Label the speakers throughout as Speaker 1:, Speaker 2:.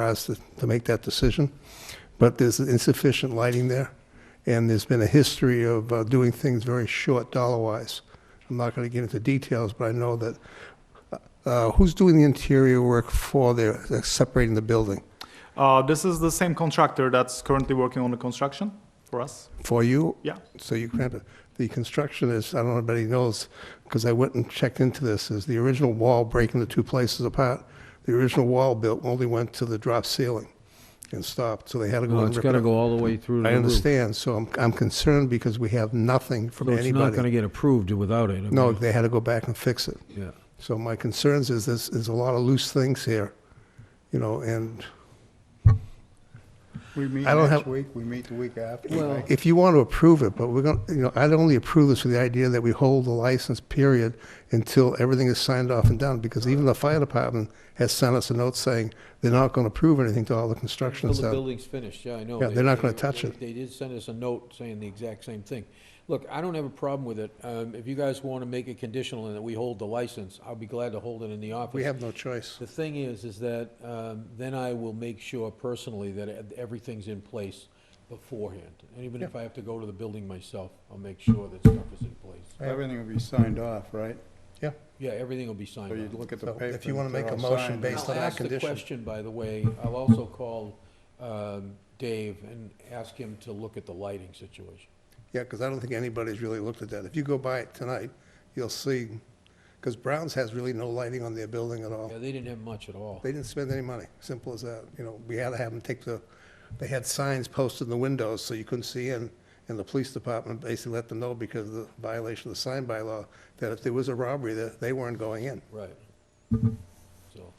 Speaker 1: for us to- to make that decision, but there's insufficient lighting there, and there's been a history of uh, doing things very short dollar-wise. I'm not going to get into details, but I know that, uh, who's doing the interior work for the, they're separating the building?
Speaker 2: Uh, this is the same contractor that's currently working on the construction for us.
Speaker 1: For you?
Speaker 2: Yeah.
Speaker 1: So you granted, the construction is, I don't know if anybody knows, because I went and checked into this, is the original wall breaking the two places apart. The original wall built only went to the drop ceiling and stopped, so they had to go
Speaker 3: No,
Speaker 1: and
Speaker 3: it's
Speaker 1: rip it
Speaker 3: gotta
Speaker 1: up.
Speaker 3: go all the way through to the
Speaker 1: I
Speaker 3: roof.
Speaker 1: understand, so I'm, I'm concerned because we have nothing from
Speaker 3: So it's not gonna
Speaker 1: anybody.
Speaker 3: get approved without it. I
Speaker 1: No,
Speaker 3: mean,
Speaker 1: they had to go back and fix it.
Speaker 3: Yeah.
Speaker 1: So my concerns is this, there's a lot of loose things here, you know, and
Speaker 4: We meet
Speaker 1: I don't
Speaker 4: next
Speaker 1: have-
Speaker 4: week, we meet the week after.
Speaker 3: Well-
Speaker 1: if you want to approve it, but we're going, to you know, I'd only approve this with the idea that we hold the license period until everything is signed off and done, because even the fire department has sent us a note saying they're not going to approve anything till all the construction's
Speaker 5: Until the
Speaker 1: done.
Speaker 5: building's finished, yeah, I know.
Speaker 1: Yeah,
Speaker 5: They-
Speaker 1: they're not gonna
Speaker 5: they-
Speaker 1: touch it.
Speaker 5: They did send us a note saying the exact same thing. Look, I don't have a problem with it. Um, If you guys want to make it conditional and that we hold the license, I'll be glad to hold it in the office.
Speaker 1: We have no choice.
Speaker 5: The thing is, is that um, then I will make sure personally that e- everything's in place beforehand. And even if I have to go to the building myself, I'll make sure that stuff is in place.
Speaker 4: Everything will be signed off, right?
Speaker 1: Yeah.
Speaker 5: Yeah, everything will be signed
Speaker 4: So you'd
Speaker 5: off.
Speaker 4: look at the
Speaker 1: So
Speaker 4: paper.
Speaker 1: if you wanna
Speaker 4: and they're
Speaker 1: make a
Speaker 4: all
Speaker 1: motion
Speaker 4: signed.
Speaker 1: based on
Speaker 5: I'll
Speaker 1: that
Speaker 5: ask the
Speaker 1: condition.
Speaker 5: question, by the way. I'll also call um, Dave and ask him to look at the lighting situation.
Speaker 1: Yeah, because I don't think anybody's really looked at that. If you go by it tonight, you'll see, because Brown's has really no lighting on their building at all.
Speaker 5: Yeah, they didn't have much at all.
Speaker 1: They didn't spend any money, simple as that. You know, we had to have them take the, they had signs posted in the windows so you couldn't see in. And the police department basically let them know because of the violation of the sign bylaw, that if there was a robbery, that they weren't going in.
Speaker 5: Right. So,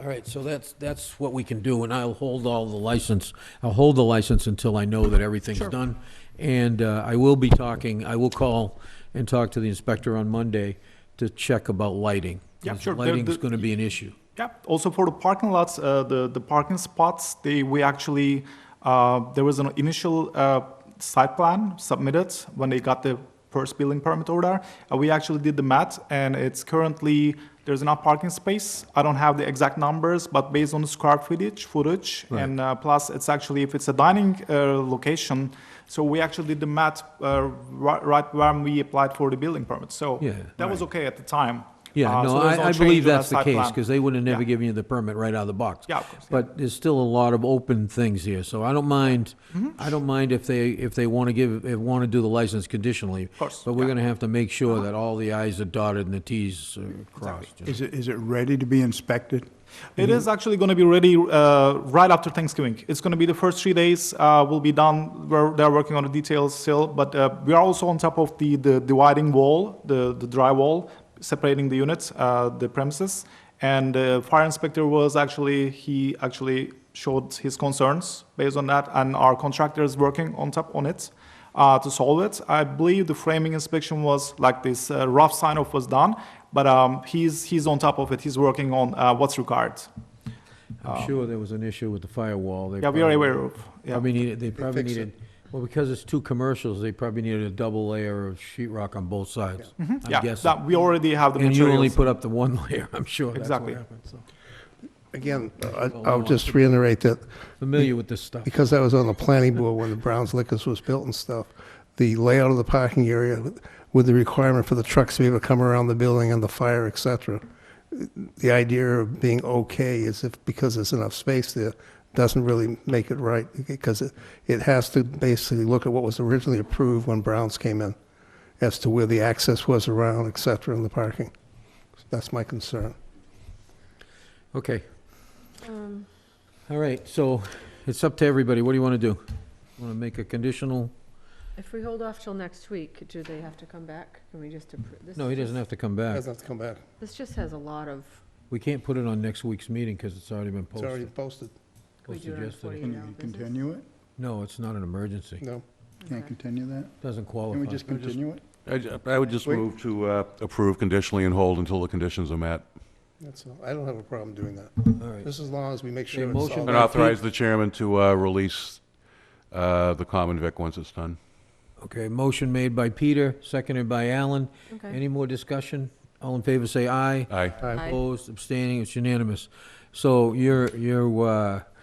Speaker 5: all right, so that's, that's what we can do, and I'll hold all the license, I'll hold the license until I know that everything's done. And uh, I will be talking, I will call and talk to the inspector on Monday to check about lighting.
Speaker 2: Yeah,
Speaker 5: 'cause
Speaker 2: sure, the-
Speaker 5: Lighting's
Speaker 2: the-
Speaker 5: gonna be an issue.
Speaker 2: Yeah. Also for the parking lots, uh, the the parking spots, they we actually uh, there was an initial uh, site plan submitted when they got the first building permit over there. Uh, we actually did the math, and it's currently there's enough parking space. I don't have the exact numbers, but based on the square footage, footage, and uh, plus it's actually if it's a dining uh, location. So we actually did the math uh, right, right when we applied for the building permit. So
Speaker 5: Yeah,
Speaker 2: that was okay at the time.
Speaker 5: Yeah,
Speaker 2: Uh,
Speaker 5: no,
Speaker 2: so there's
Speaker 5: I, I
Speaker 2: change
Speaker 5: believe
Speaker 2: on the
Speaker 5: that's the
Speaker 2: site
Speaker 5: case,
Speaker 2: plan.
Speaker 5: because they would have never
Speaker 2: Yeah.
Speaker 5: given you the permit right out of the box.
Speaker 2: Yeah, of course, yeah.
Speaker 5: But there's still a lot of open things here, so I don't mind,
Speaker 2: Mm-hmm.
Speaker 5: I don't mind if they, if they want to give, if want to do the license conditionally. Of
Speaker 2: course,
Speaker 5: But
Speaker 2: yeah.
Speaker 5: we're
Speaker 2: Uh-huh.
Speaker 5: going to have to make sure that all the i's are dotted and the t's are crossed.
Speaker 4: Is it, is it ready to be inspected?
Speaker 2: It is actually going to be ready uh, right after Thanksgiving. It's going to be the first three days. Uh, we'll be done. We're, they're working on the details still, but uh, we are also on top of the, the dividing wall, the, the drywall, separating the units, uh, the premises. And the fire inspector was actually, he actually showed his concerns based on that, and our contractor is working on top on it uh, to solve it. I believe the framing inspection was like this uh, rough sign off was done, but um, he's he's on top of it. He's working on uh, what's required.
Speaker 5: I'm sure there was an issue with the firewall. They
Speaker 2: uh, Yeah, we are
Speaker 5: probably-
Speaker 2: aware of. Yeah.
Speaker 5: Probably needed, they probably
Speaker 1: fixed it.
Speaker 5: needed, well, because it's two commercials, they probably needed a double layer of sheet rock on both sides,
Speaker 2: yeah,
Speaker 5: I'm guessing.
Speaker 2: that- we already have the
Speaker 5: And you only
Speaker 2: materials.
Speaker 5: put up the one layer, I'm sure. that's what
Speaker 2: Exactly.
Speaker 5: happened, so.
Speaker 1: Again, I- I'll just reiterate that
Speaker 5: Familiar with this stuff.
Speaker 1: because I was on the planning board when the Browns Liquors was built and stuff, the layout of the parking area with the requirement for the trucks to be able to come around the building and the fire, et cetera. The idea of being okay is if, because there's enough space there, doesn't really make it right, because it, it has to basically look at what was originally approved when Browns came in, as to where the access was around, et cetera, in the parking. That's my concern.
Speaker 5: Okay.
Speaker 6: Um,
Speaker 5: All right, so it's up to everybody. What do you want to do? Want to make a conditional?
Speaker 6: If we hold off till next week, do they have to come back? Can we just approve? this
Speaker 5: No, he doesn't have to come back.
Speaker 1: Doesn't have to come back.
Speaker 6: This just has a lot of,
Speaker 5: We can't put it on next week's meeting because it's already been
Speaker 1: It's already
Speaker 5: posted.
Speaker 1: posted,
Speaker 6: we do
Speaker 5: Posted
Speaker 6: it on
Speaker 5: yesterday.
Speaker 4: Can
Speaker 6: 48 hour
Speaker 4: you
Speaker 6: business.
Speaker 4: continue it?
Speaker 5: No, it's not an emergency.
Speaker 1: no.
Speaker 4: Can't
Speaker 6: Okay.
Speaker 4: continue that?
Speaker 5: Doesn't qualify.
Speaker 4: Can we just continue it?
Speaker 7: I ju- I would just
Speaker 4: Wait.
Speaker 7: move to uh, approve conditionally and hold until the conditions are met.
Speaker 1: That's all. I don't have a problem doing that.
Speaker 5: All right.
Speaker 1: Just as long as we make sure it's
Speaker 5: motion
Speaker 1: all.
Speaker 7: And authorize the chairman to uh, release uh, the common vic once it's done.
Speaker 5: Okay, motion made by Peter, seconded by Alan.
Speaker 6: Okay.
Speaker 5: Any more discussion? All in favor, say aye.
Speaker 7: Aye.
Speaker 6: Aye.
Speaker 5: Opposed, abstaining, it's unanimous. So you're, you're, uh,